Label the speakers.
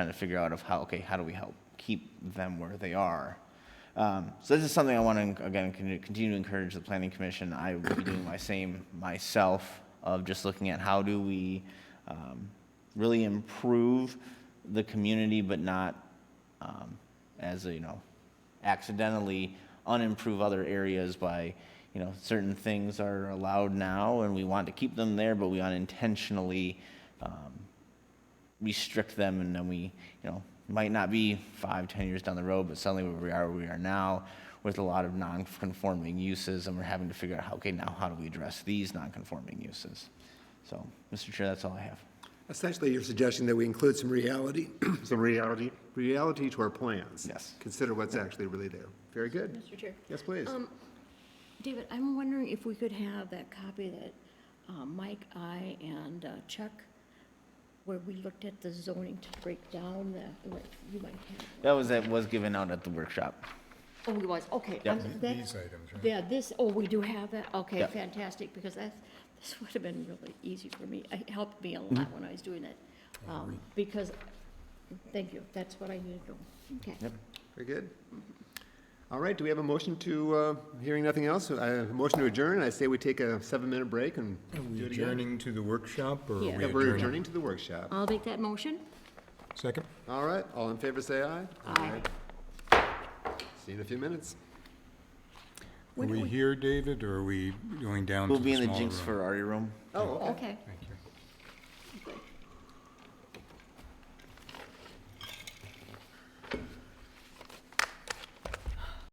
Speaker 1: trying to figure out of how, okay, how do we help keep them where they are? Um, So this is something I want to, again, con- continue to encourage the planning commission. I will be doing my same myself of just looking at how do we um, really improve the community, but not um, as, a, you know, accidentally unimprove other areas by, you know, certain things are allowed now and we want to keep them there, but we unintentionally um, restrict them and then we, you know, might not be five, ten years down the road, but suddenly where we are where we are now with a lot of non-conforming uses and we're having to figure out, how okay, now how do we address these non-conforming uses? So, Mr. Chair, that's all I have.
Speaker 2: Essentially, you're suggesting that we include some reality, some reality, reality to our plans.
Speaker 1: Yes.
Speaker 2: Consider what's actually really there. Very good.
Speaker 3: Mr. Chair.
Speaker 2: Yes, please.
Speaker 3: David, I'm wondering if we could have that copy that uh, Mike, I, and uh, Chuck, where we looked at the zoning to break down the, like, you might have.
Speaker 1: That was, that was given out at the workshop.
Speaker 3: Oh, it was, okay.
Speaker 1: Yeah.
Speaker 3: I'm- that-
Speaker 4: These items, right?
Speaker 3: Yeah, this, oh, we do have that, okay,
Speaker 1: Yeah.
Speaker 3: fantastic, because that's, this would have been really easy for me. It helped me a lot when I was doing it, um, because, thank you, that's what I needed to know. Okay.
Speaker 2: Very good. All right, do we have a motion to, uh, hearing nothing else, a motion to adjourn? I say we take a seven-minute break and
Speaker 4: Are we
Speaker 2: do it again.
Speaker 4: adjourning to the workshop, or are
Speaker 3: Yeah.
Speaker 4: we
Speaker 2: Yeah, we're
Speaker 4: adjourning?
Speaker 2: adjourning to the workshop.
Speaker 3: I'll make that motion.
Speaker 4: Second?
Speaker 2: All right, all in favor, say aye.
Speaker 3: Aye.
Speaker 2: See you in a few minutes.
Speaker 4: Are we here, David, or are we going down to
Speaker 1: We'll
Speaker 4: the
Speaker 1: be in the
Speaker 4: smaller
Speaker 1: Jinx
Speaker 4: room?
Speaker 1: Ferrari room.
Speaker 2: Oh, okay.
Speaker 3: Okay.
Speaker 4: Thank you.